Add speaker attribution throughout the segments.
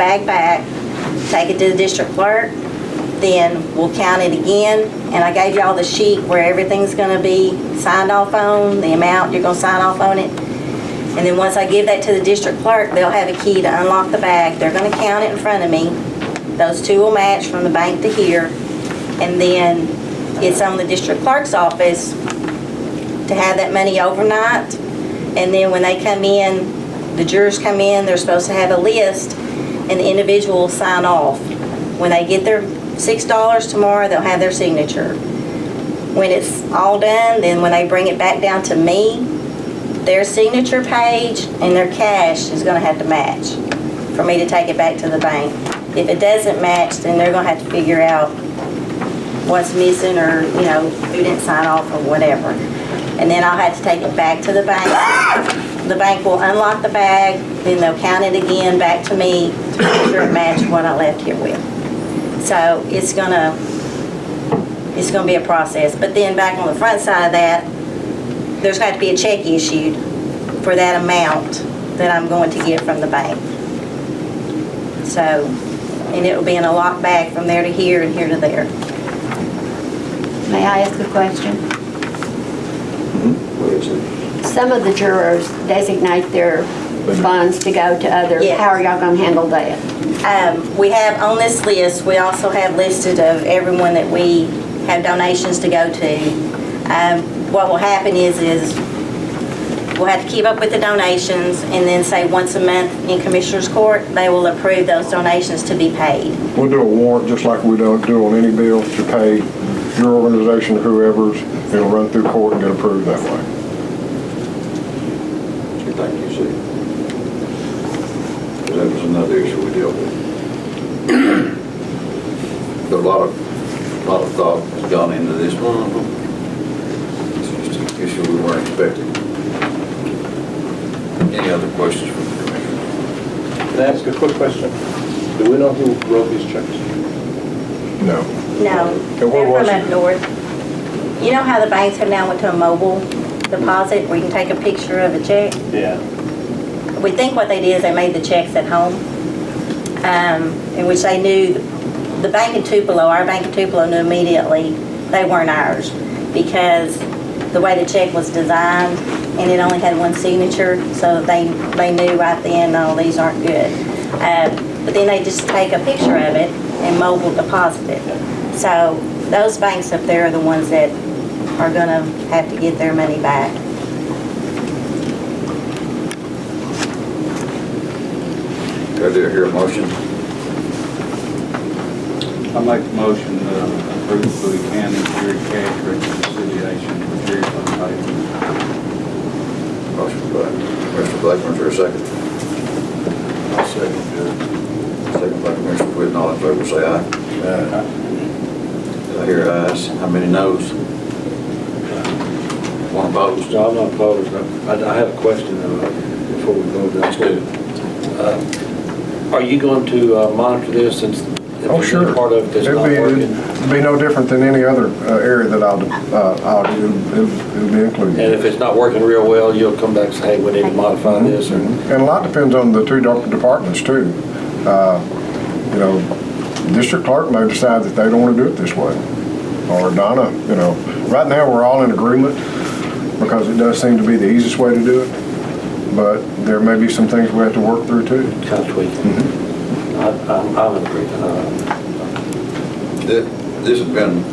Speaker 1: bag back, take it to the district clerk, then we'll count it again. And I gave y'all the sheet where everything's gonna be signed off on, the amount, you're gonna sign off on it. And then once I give that to the district clerk, they'll have a key to unlock the bag. They're gonna count it in front of me. Those two will match from the bank to here. And then it's on the district clerk's office to have that money overnight. And then when they come in, the jurors come in, they're supposed to have a list, and the individual will sign off. When they get their six dollars tomorrow, they'll have their signature. When it's all done, then when they bring it back down to me, their signature page and their cash is gonna have to match for me to take it back to the bank. If it doesn't match, then they're gonna have to figure out what's missing or, you know, who didn't sign off or whatever. And then I'll have to take it back to the bank. The bank will unlock the bag, then they'll count it again back to me to make sure it matched what I left here with. So it's gonna, it's gonna be a process. But then back on the front side of that, there's got to be a check issued for that amount that I'm going to get from the bank. So, and it'll be in a locked bag from there to here and here to there.
Speaker 2: May I ask a question? Some of the jurors designate their funds to go to others.
Speaker 1: Yes.
Speaker 2: How are y'all gonna handle that?
Speaker 1: Um, we have on this list, we also have listed of everyone that we have donations to go to. Um, what will happen is, is we'll have to keep up with the donations and then say once a month in Commissioners Court, they will approve those donations to be paid.
Speaker 3: We'll do a warrant, just like we don't do on any bill, to pay your organization, or whoever's, it'll run through court and get approved that way.
Speaker 4: you think you see. 'Cause that was another issue we dealt with. But A lot of, lot of thought has gone into this one. It's just an issue we weren't expecting. Any other questions from the commission?
Speaker 5: Can I ask a quick question? Do we know who wrote these checks?
Speaker 3: No.
Speaker 1: No,
Speaker 3: Okay, what
Speaker 1: they're
Speaker 3: was
Speaker 1: from
Speaker 3: it?
Speaker 1: up north. You know how the banks have now went to a mobile deposit where you can take a picture of a check?
Speaker 5: Yeah.
Speaker 1: We think what they did is they made the checks at home, um, in which they knew, the bank in Tupelo, our bank in Tupelo knew immediately they weren't ours because the way the check was designed and it only had one signature, so they, they knew right then, no, these aren't good. Uh, But then they just take a picture of it and mobile deposit it. So those banks up there are the ones that are gonna have to get their money back.
Speaker 4: Do I hear a motion?
Speaker 6: I make the motion to approve Bowie County jury cash reconciliation for jury fund payments.
Speaker 4: Motion by Commissioner Blackburn, is there a second? I'll second, Second by Commissioner Whitten, all in favor, say aye. Do I hear ayes? How many noes? One opposed?
Speaker 5: No, I'm not opposed. I I have a question though, before we go down.
Speaker 4: Let's do it.
Speaker 5: Uh, Are you going to uh, monitor this since? if
Speaker 3: Oh,
Speaker 5: there's
Speaker 3: sure.
Speaker 5: any Part of this
Speaker 3: It'd
Speaker 5: not
Speaker 3: be-
Speaker 5: working?
Speaker 3: It'd be no different than any other uh, area that I'll, uh, I'll do, It'll- it'll be
Speaker 5: And if
Speaker 3: included.
Speaker 5: it's not working real well, you'll come back and say, hey, we need to modify this or?
Speaker 3: And a lot depends on the two doc- departments too. Uh, You know, district clerk may decide that they don't want to do it this way, or Donna, you know. Right now, we're all in agreement because it does seem to be the easiest way to do it, but there may be some things we have to work through too.
Speaker 5: Kind of tweaking. I- I'm I'm in agreement. Uh,
Speaker 4: Thi- This has been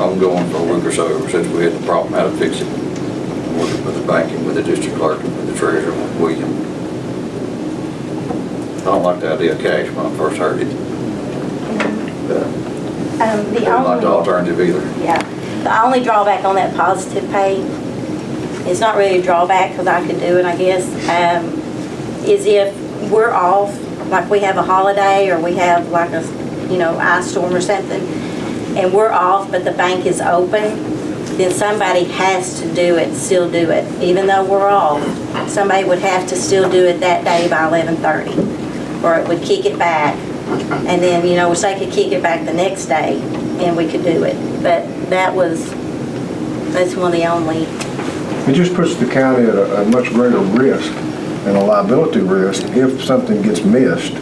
Speaker 4: ongoing for a week or so since we had the problem, how to fix it. Working with the banking, with the district clerk, with the treasurer, with William. I don't like the idea of cash when I first heard it. but
Speaker 1: Um,
Speaker 4: I
Speaker 1: Mm-hmm. the
Speaker 4: don't like
Speaker 1: only-
Speaker 4: the alternative either.
Speaker 1: Yeah, the only drawback on that positive pay, it's not really a drawback, because I could do it, I guess, um, is if we're off, like we have a holiday, or we have like a, you know, ice storm or something, and we're off, but the bank is open, then somebody has to do it, still do it, even though we're off. Somebody would have to still do it that day by eleven-thirty, or it would kick it back, and then, you know, wish they could kick it back the next day and we could do it. But that was, that's one of the only,
Speaker 3: It just puts the county at a, a much greater risk and a liability risk if something gets missed